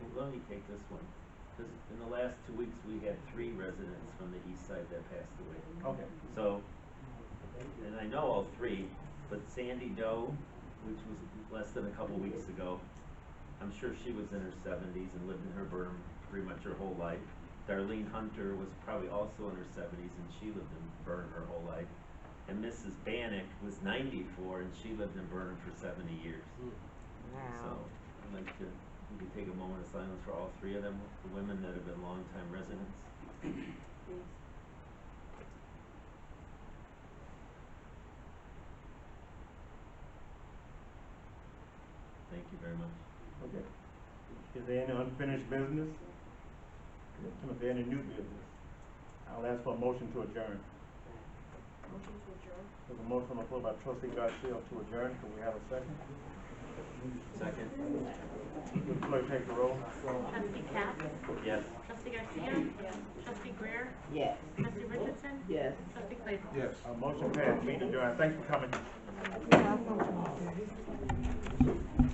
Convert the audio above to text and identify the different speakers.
Speaker 1: let me take this one. Cause in the last two weeks, we had three residents from the east side that passed away.
Speaker 2: Okay.
Speaker 1: So, and I know all three, but Sandy Doe, which was less than a couple weeks ago, I'm sure she was in her seventies and lived in her berm pretty much her whole life. Darlene Hunter was probably also in her seventies and she lived in Burnham her whole life. And Mrs. Bannick was ninety-four and she lived in Burnham for seventy years. So, I'd like to, we could take a moment of silence for all three of them, the women that have been longtime residents. Thank you very much.
Speaker 2: Okay. Is there any unfinished business? Is there any new business? I'll ask for a motion to adjourn.
Speaker 3: Motion to adjourn.
Speaker 2: There's a motion on the floor by trustee Garcia to adjourn. Can we have a second?
Speaker 1: Second?
Speaker 2: Would the clerk take the roll?
Speaker 4: Trustee Cap?
Speaker 1: Yes.
Speaker 4: Trustee Garcia? Yes. Trustee Greer?
Speaker 5: Yes.
Speaker 4: Trustee Richardson?
Speaker 5: Yes.
Speaker 4: Trustee Claybrook?
Speaker 2: A motion passed. Meeting adjourned. Thanks for coming.